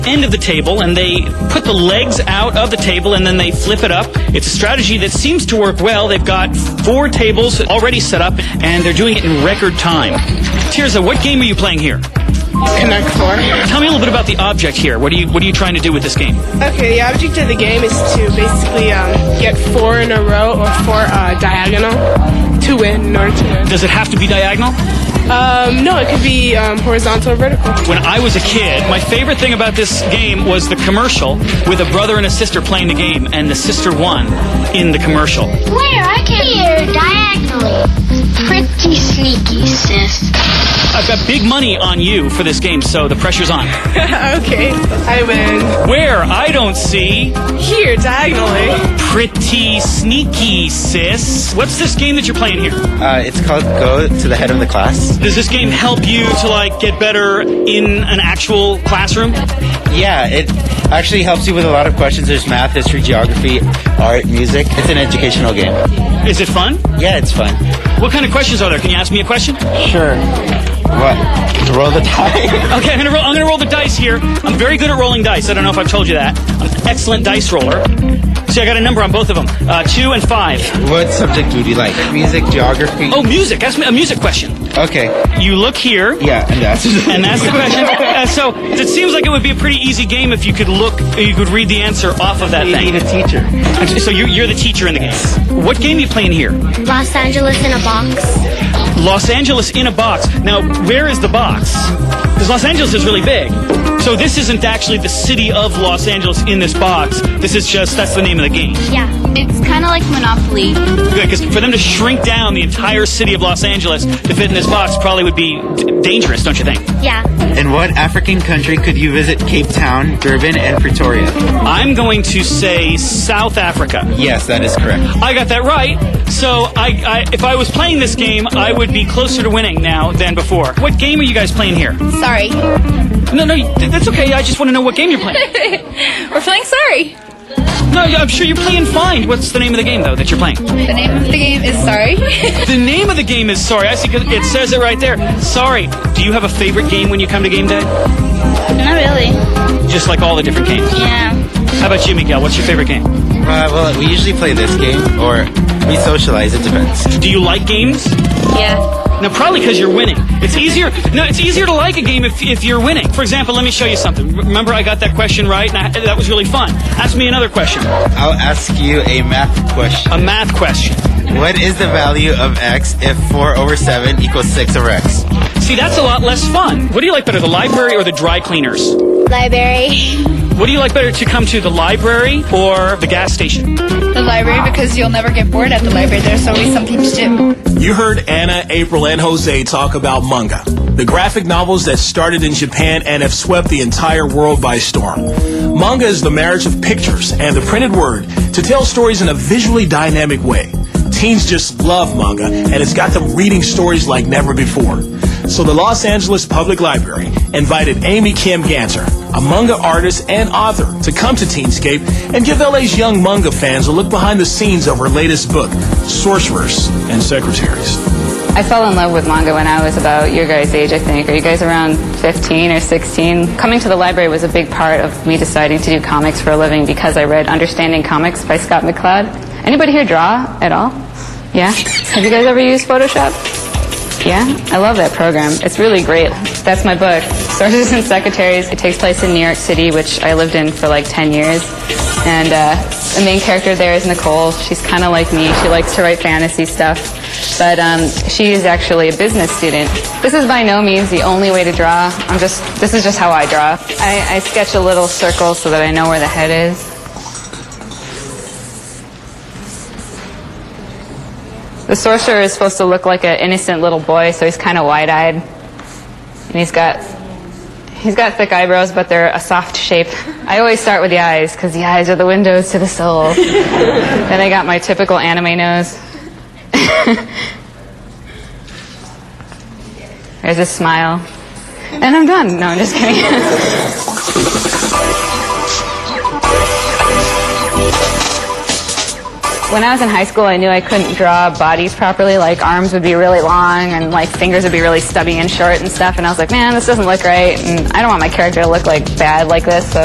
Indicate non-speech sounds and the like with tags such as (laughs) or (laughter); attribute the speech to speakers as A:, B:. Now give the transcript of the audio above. A: end of the table and they put the legs out of the table and then they flip it up. It's a strategy that seems to work well. They've got four tables already set up and they're doing it in record time. Tirza, what game are you playing here?
B: Connect Four.
A: Tell me a little bit about the object here. What are you what are you trying to do with this game?
B: Okay, the object of the game is to basically um, get four in a row or four uh, diagonal to win in order to win.
A: Does it have to be diagonal?
B: Um, no, it could be um, horizontal or vertical. (laughs)
A: When I was a kid, my favorite thing about this game was the commercial with a brother and a sister playing the game and the sister won in the commercial.
C: Where I can hear diagonally. Pretty sneaky, sis.
A: I've got big money on you for this game, so the pressure's on.
B: okay, I win.
A: Where I don't see
B: Here, diagonally.
A: Pretty sneaky, sis. What's this game that you're playing here?
D: Uh, it's called Go to the Head of the Class.
A: Does this game help you to like get better in an actual classroom?
D: Yeah, it actually helps you with a lot of questions. There's math, history, geography, art, music. It's an educational game.
A: Is it fun?
D: Yeah, it's fun.
A: What kind of questions are there? Can you ask me a question? Okay,
D: Sure. What? Roll the die?
A: I'm gonna roll, I'm gonna roll the dice here. I'm very good at rolling dice. I don't know if I've told you that. I'm an excellent dice roller. See, I got a number on both of them, uh, two and five.
D: (laughs) what subject would you like? Music, geography.
A: Oh, music. Ask me a music question.
D: Okay.
A: You look here.
D: Yeah, and that's. (laughs)
A: And that's the question. Uh, so it seems like it would be a pretty easy game if you could look, you could read the answer off of that
D: you need
A: thing.
D: a teacher.
A: So you're, you're the teacher in the game. What game are you playing here?
C: Los Angeles in a box.
A: Los Angeles in a box. Now, where is the box? Because Los Angeles is really big. So this isn't actually the city of Los Angeles in this box. This is just, that's the name of the game.
C: Yeah.
E: It's kind of like Monopoly.
A: Because for them to shrink down the entire city of Los Angeles to fit in this box probably would be d- dangerous, don't you think?
C: Yeah.
D: In what African country could you visit Cape Town, Durban, and Pretoria?
A: I'm going to say South Africa.
D: Yes, that is correct.
A: I got that right. So I, I, if I was playing this game, I would be closer to winning now than before. What game are you guys playing here?
E: Sorry.
A: No, no, th- that's okay. I just want to know what game you're (laughs) playing.
E: We're playing sorry.
A: No, I'm sure you're playing fine. What's the name of the game though that you're playing?
E: The name of the game is sorry. (laughs)
A: The name of the game is Sorry. I see 'cause it says it right there. Sorry. Do you have a favorite game when you come to game day?
E: Not really.
A: Just like all the different games.
E: Yeah.
A: How about you, Miguel? What's your favorite game?
D: Uh, well, we usually play this game, or we socialize, it depends.
A: Do you like games?
E: Yeah.
A: No, probably because you're winning. It's easier. No, it's easier to like a game if, if you're winning. For example, let me show you something. Remember, I got that question right, and I, that was really fun. Ask me another question. A
D: I'll ask you a math question.
A: math question.
D: What is the value of x if 4 over 7 equals 6 over x?
A: See, that's a lot less fun. What do you like better, the library or the dry cleaners?
C: Library.
A: What do you like better to come to, the library or the gas station?
E: The library because you'll never get bored at the library. There's always something to do.
F: You heard Anna, April, and Jose talk about manga, the graphic novels that started in Japan and have swept the entire world by storm. Manga is the marriage of pictures and the printed word to tell stories in a visually dynamic way. Teens just love manga, and it's got them reading stories like never before. So the Los Angeles Public Library invited Amy Kim Ganser, a manga artist and author, to come to Teenscape and give LA's young manga fans a look behind the scenes of her latest book, Sorcerers and Secretaries.
G: I fell in love with manga when I was about your guys' age, I think. Are you guys around 15 or 16? Coming to the library was a big part of me deciding to do comics for a living because I read Understanding Comics by Scott McCloud. Anybody here draw at all? Yeah? Have you guys ever used Photoshop? Yeah? I love that program. It's really great. That's my book, Sources and Secretaries. It takes place in New York City, which I lived in for like 10 years. And uh, the main character there is Nicole. She's kind of like me. She likes to write fantasy stuff. But um, she is actually a business student. This is by no means the only way to draw. I'm just, this is just how I draw. I, I sketch a little circle so that I know where the head is. The sorcerer is supposed to look like an innocent little boy, so he's kind of wide-eyed, and he's got he's got thick eyebrows, but they're a soft shape. I always start with the eyes because the eyes are the windows to the soul. then I got my typical anime nose. (laughs) There's a smile, and I'm done. No, I'm just kidding. (laughs) When I was in high school, I knew I couldn't draw bodies properly. Like arms would be really long and like fingers would be really stubby and short and stuff. And I was like, man, this doesn't look right. And I don't want my character to look like bad like this. So